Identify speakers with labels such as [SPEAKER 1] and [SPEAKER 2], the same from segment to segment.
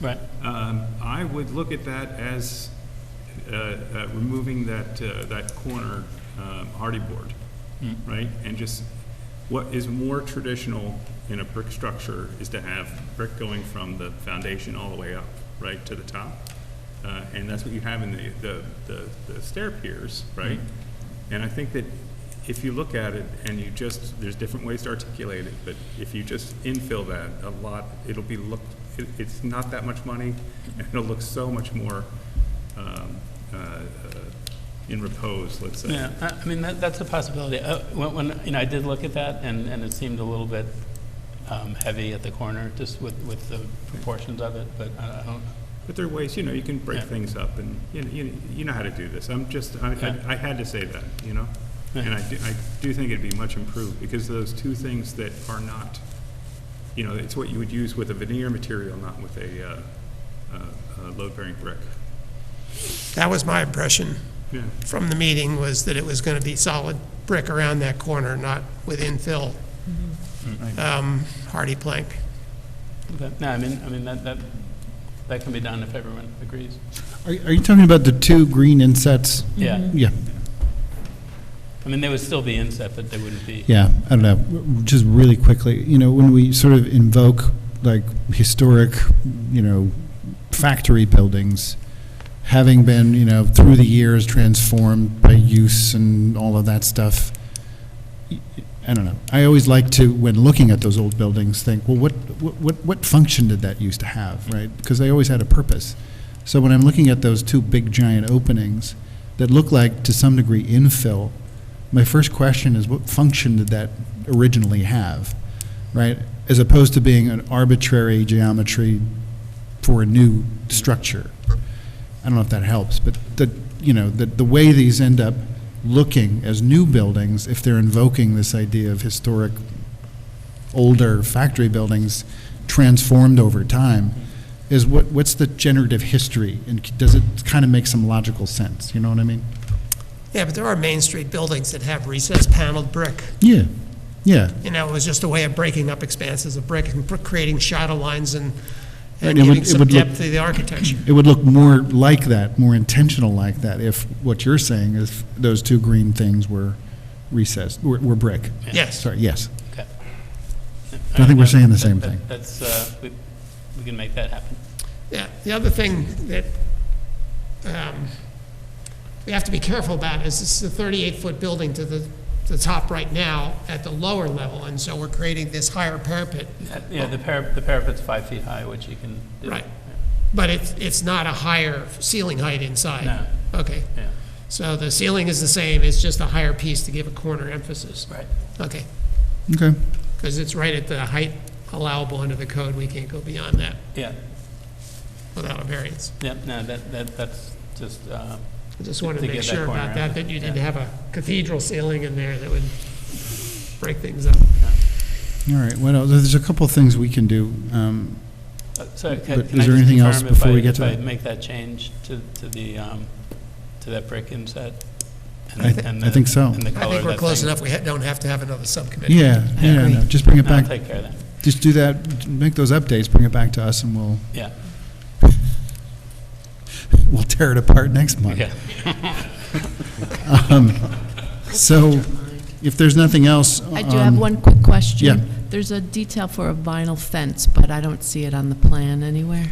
[SPEAKER 1] Right.
[SPEAKER 2] Um, I would look at that as uh, uh, removing that, uh, that corner um, hardy board, right? And just, what is more traditional in a brick structure is to have brick going from the foundation all the way up, right, to the top. Uh, And that's what you have in the- the, the, the stair piers, right? And I think that if you look at it and you just, there's different ways to articulate it, but if you just infill that a lot, it'll be look, it, it's not that much money, and it'll look so much more, um, uh, uh, in repose, let's say.
[SPEAKER 1] Yeah, I I mean, that- that's a possibility. Uh, When, when, you know, I did look at that, and, and it seemed a little bit um, heavy at the corner, just with, with the proportions of it, but I I don't,
[SPEAKER 2] But there are ways, you know, you can break
[SPEAKER 1] Yeah.
[SPEAKER 2] things up, and, you know, you, you know how to do this. I'm just, I,
[SPEAKER 1] Yeah.
[SPEAKER 2] I I had to say that, you know?
[SPEAKER 1] Yeah.
[SPEAKER 2] And I do, I do think it'd be much improved, because those two things that are not, you know, it's what you would use with a veneer material, not with a, uh, uh, uh, load-bearing brick.
[SPEAKER 3] That was my impression
[SPEAKER 2] Yeah,
[SPEAKER 3] from the meeting, was that it was going to be solid brick around that corner, not with infill
[SPEAKER 4] Mm-hmm.
[SPEAKER 3] um, hardy plank.
[SPEAKER 1] but, no, I mean, I mean, that, that, that can be done if everyone agrees.
[SPEAKER 4] Are are you talking about the two green insets?
[SPEAKER 1] Yeah,
[SPEAKER 4] Yeah,
[SPEAKER 1] I mean, they would still be inset, but they wouldn't be.
[SPEAKER 4] yeah, I don't know, W- w- just really quickly, you know, when we sort of invoke like historic, you know, factory buildings, having been, you know, through the years transformed by use and all of that stuff, y- y- I don't know, I always like to, when looking at those old buildings, think, well, what, what, what- what function did that used to have, right? Because they always had a purpose. So when I'm looking at those two big giant openings that look like, to some degree, infill, my first question is what function did that originally have, right? As opposed to being an arbitrary geometry for a new structure. I don't know if that helps, but the, you know, the, the way these end up looking as new buildings, if they're invoking this idea of historic, older factory buildings transformed over time, is what, what's the generative history? And does it kind of make some logical sense? You know what I mean?
[SPEAKER 3] Yeah, but there are Main Street buildings that have recessed paneled brick.
[SPEAKER 4] Yeah, yeah.
[SPEAKER 3] You know, it was just a way of breaking up expanses of brick and pr- creating shadow lines and, and
[SPEAKER 4] Right, it would-
[SPEAKER 3] giving
[SPEAKER 4] it
[SPEAKER 3] some
[SPEAKER 4] would look-
[SPEAKER 3] depth to the architecture.
[SPEAKER 4] It would look more like that, more intentional like that, if what you're saying is those two green things were recessed, were, were brick.
[SPEAKER 3] Yes.
[SPEAKER 4] Sorry, yes.
[SPEAKER 1] Okay.
[SPEAKER 4] I think we're saying the
[SPEAKER 1] That-
[SPEAKER 4] same
[SPEAKER 1] that-
[SPEAKER 4] thing.
[SPEAKER 1] That's, uh, we, we can make that happen.
[SPEAKER 3] Yeah, the other thing that um, we have to be careful about is this is a 38-foot building to the, the top right now at the lower level, and so we're creating this higher parapet.
[SPEAKER 1] Uh, Yeah, the parapet, the parapet's five feet high, which you can do.
[SPEAKER 3] Right. But it's, it's not a higher ceiling height inside.
[SPEAKER 1] No.
[SPEAKER 3] Okay,
[SPEAKER 1] Yeah,
[SPEAKER 3] so the ceiling is the same, it's just a higher piece to give a corner emphasis.
[SPEAKER 1] right.
[SPEAKER 3] Okay,
[SPEAKER 4] Okay.
[SPEAKER 3] because it's right at the height allowable under the code, we can't go beyond that
[SPEAKER 1] Yeah,
[SPEAKER 3] without a variance.
[SPEAKER 1] yeah, no, that, that, that's just, uh,
[SPEAKER 3] I just
[SPEAKER 1] To
[SPEAKER 3] wanted to
[SPEAKER 1] get
[SPEAKER 3] make
[SPEAKER 1] that
[SPEAKER 3] sure
[SPEAKER 1] corner
[SPEAKER 3] about
[SPEAKER 1] out.
[SPEAKER 3] that, that you didn't
[SPEAKER 1] Yeah.
[SPEAKER 3] have a cathedral ceiling in there that would break things up.
[SPEAKER 1] Oh,
[SPEAKER 4] All right, what else? There's a couple of things we can do. Um,
[SPEAKER 1] Uh, So ca-
[SPEAKER 4] But
[SPEAKER 1] can I
[SPEAKER 4] is there
[SPEAKER 1] just
[SPEAKER 4] anything else
[SPEAKER 1] confirm if
[SPEAKER 4] before
[SPEAKER 1] I-
[SPEAKER 4] we get to
[SPEAKER 1] If I
[SPEAKER 4] that?
[SPEAKER 1] make that change to, to the, um, to that brick inset? and-
[SPEAKER 4] I th-
[SPEAKER 1] and
[SPEAKER 4] I
[SPEAKER 1] the-
[SPEAKER 4] think so.
[SPEAKER 1] And the
[SPEAKER 3] I
[SPEAKER 1] color
[SPEAKER 3] think
[SPEAKER 1] of
[SPEAKER 3] we're
[SPEAKER 1] that
[SPEAKER 3] close
[SPEAKER 1] thing?
[SPEAKER 3] enough, we ha- don't have to have another subcommittee.
[SPEAKER 4] yeah, yeah, no, just bring it
[SPEAKER 1] I'll
[SPEAKER 4] back,
[SPEAKER 1] take care of that,
[SPEAKER 4] just do that, make those updates, bring it back to us, and we'll,
[SPEAKER 1] yeah,
[SPEAKER 4] we'll tear it apart next month.
[SPEAKER 1] yeah.
[SPEAKER 4] So, if there's nothing else.
[SPEAKER 5] I do have one quick question.
[SPEAKER 4] Um, yeah.
[SPEAKER 5] There's a detail for a vinyl fence, but I don't see it on the plan anywhere.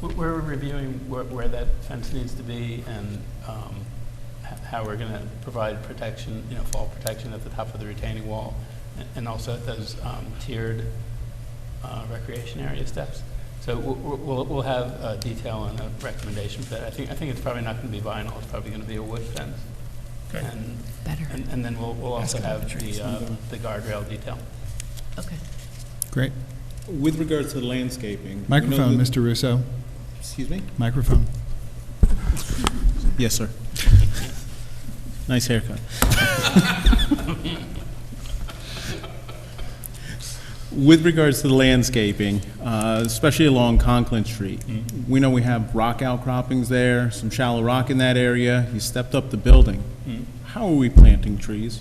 [SPEAKER 1] We- We're reviewing where, where that fence needs to be and, um, h- how we're gonna provide protection, you know, fall protection at the top of the retaining wall a- and also at those, um, tiered, uh, recreation area steps. So w- w- we'll, we'll have, uh, detail and a recommendation for that. I think, I think it's probably not gonna be vinyl, it's probably gonna be a wood fence.
[SPEAKER 3] Okay.
[SPEAKER 1] And,
[SPEAKER 5] Better.
[SPEAKER 1] and, and then we'll, we'll also have the, uh, the guardrail detail.
[SPEAKER 5] Okay.
[SPEAKER 4] Great.
[SPEAKER 6] With regards to the landscaping. we know
[SPEAKER 4] Microphone,
[SPEAKER 6] that-
[SPEAKER 4] Mr. Russo,
[SPEAKER 6] Excuse me?
[SPEAKER 4] microphone.
[SPEAKER 6] Yes, sir. Nice haircut. With regards to the landscaping, uh, especially along Conklin Street, we know we have rock outcroppings there, some shallow rock in that area. You stepped up the building. How are we planting trees?